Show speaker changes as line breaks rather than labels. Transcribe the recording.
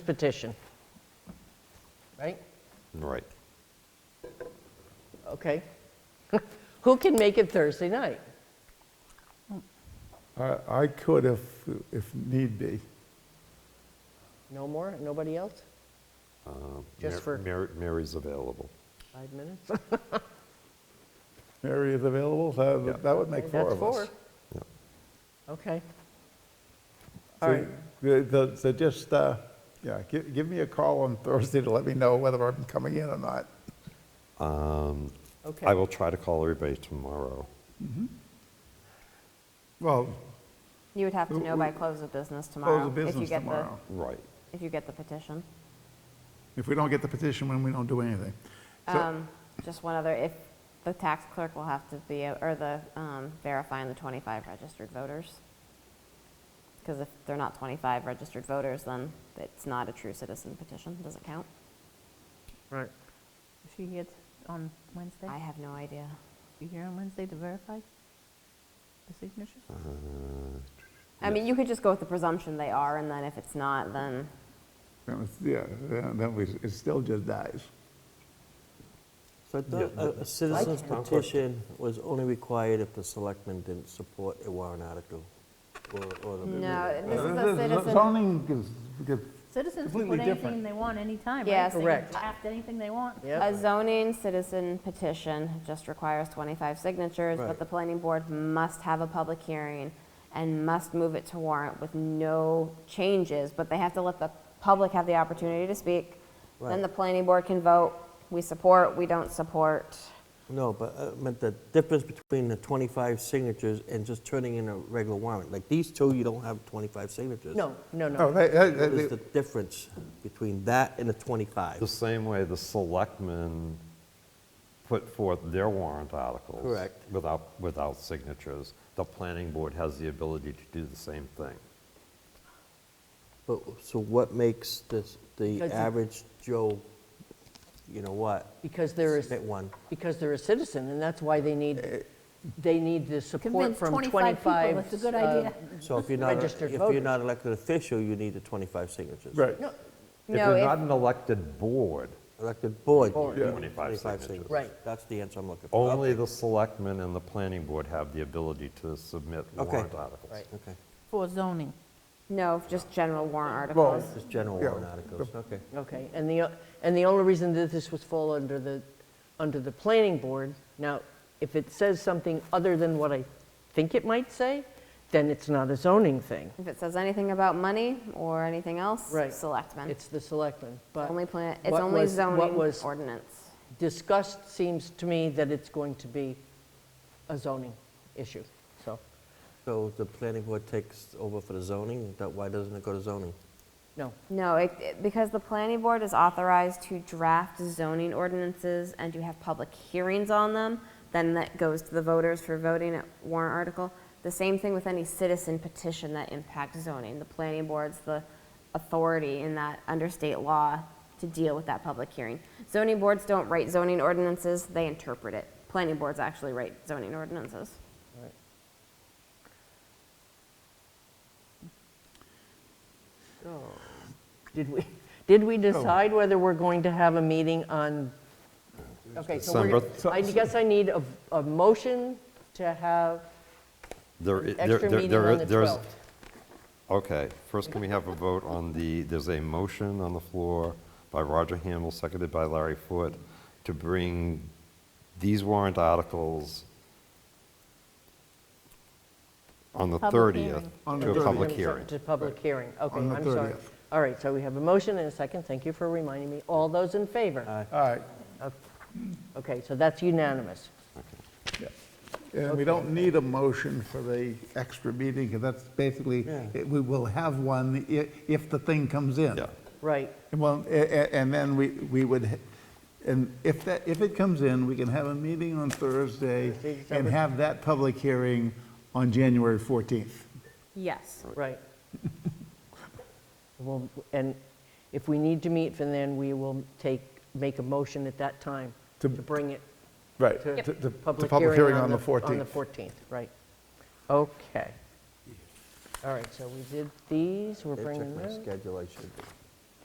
petition. Right?
Right.
Okay. Who can make it Thursday night?
I I could if, if need be.
No more? Nobody else? Just
Uh, Mar-
for-
Mar- Mary's available.
Five minutes?
Mary is available,
Yeah.
so that would make four
That's
of us.
four. Okay.
So
All right.
the- the- So just, uh, yeah, gi- give me a call on Thursday to let me know whether I'm coming in or not.
Okay.
Um, I will try to call everybody tomorrow.
Well,
You would have to
W-
know by
w-
close of business
close
tomorrow.
of
if you
business
get the-
tomorrow.
Right.
If you get the petition.
If we don't get the petition, when we don't do anything. So-
Um, Just one other, if the tax clerk will have to be, a- or the um, verifying the 25 registered voters. Because if they're not 25 registered voters, then it's not a true citizen petition, doesn't count.
Right.
She gets on Wednesday?
I have no idea.
You're here on Wednesday to verify the signature?
I mean, you could just go with the presumption they are, and then if it's not, then,
then it's- Yeah, then then we, it still just dies.
So I thought a- a citizen's petition was only required if the selectmen didn't support a warrant article or- or the...
no, this is a citizen.
Zoning is, is-
Citizens can
Completely
put anything
different.
they want anytime, right?
Yes.
They can
Correct.
Draft anything they want.
Yep.
A zoning citizen petition just requires 25 signatures, but
Right.
the planning board must have a public hearing and must move it to warrant with no changes, but they have to let the public have the opportunity to speak. Then
Right.
the planning board can vote, we support, we don't support.
No, but I meant the difference between the 25 signatures and just turning in a regular warrant. Like these two, you don't have 25 signatures.
No, no,
no,
no.
they- they-
What is
they-
the difference between that and the 25?
The same way the selectmen put forth their warrant articles.
Correct.
Without, without signatures. The planning board has the ability to do the same thing.
But- So what makes this, the
Because you-
average Joe, you know what,
Because there is,
submit one?
because they're a citizen, and that's why they
Uh,
need, they need the support
Convince
from 25.
25 people it's a good
uh,
idea.
So if you're not, if
Registered
you're
voters.
not elected official, you need the 25 signatures.
Right.
No,
If
No,
you're
if-
not an elected board,
Elected board.
Board.
Yeah.
25 signatures.
Right.
That's the answer I'm looking for.
only the selectmen and the planning board have the ability to submit
Okay.
warrant articles.
Okay.
For zoning.
No, just general warrant articles.
Just general
Yeah.
warrant articles, okay.
Okay, and the, o- and the only reason that this was fall under the, under the planning board, now, if it says something other than what I think it might say, then it's not a zoning thing.
If it says anything about money or anything else,
Right.
selectmen.
It's the selectmen, but.
Only plan, it's
what
only
was- What
zoning
was
ordinance.
discussed seems to me that it's going to be a zoning issue, so,
So the planning board takes over for the zoning, that, why doesn't it go to zoning?
no.
No, it- it, because the planning board is authorized to draft zoning ordinances and to have public hearings on them, then that goes to the voters for voting at warrant article. The same thing with any citizen petition that impacts zoning. The planning board's the authority in that, under state law, to deal with that public hearing. Zoning boards don't write zoning ordinances, they interpret it. Planning boards actually write zoning ordinances.
Oh. Did we, did
Oh.
we decide whether we're going to have a meeting on, okay, so
December.
we're, I guess I need a, a motion to have
There i-
an
there-
extra
there-
meeting
there i-
on the
there is-
12th.
Okay, first can we have a vote on the, there's a motion on the floor by Roger Hamel, seconded by Larry Foote, to bring these warrant articles on the
Public
30th
hearing.
On
to
the
a public
30th.
hearing.
To public hearing, okay,
On the
I'm sorry.
30th.
All right, so we have a motion and a second, thank you for reminding me. All those in favor?
All right.
Okay, so that's unanimous.
And we don't need a motion for the extra meeting, because that's basically,
Yeah.
it- we will have one i- if the thing comes in.
Yeah,
Right,
Well, a- a- and then we, we would, h- and if that, if it comes in, we can have a meeting on Thursday and have that public hearing on January 14th.
Yes.
right. Well, And if we need to meet for then, we will take, make a motion at that time to
To-
bring it
Right.
to.
The
public hearing on the 14th. On the 14th, right. Okay. All right, so we did these, we're
They
bringing
checked my
those.
schedule, I should.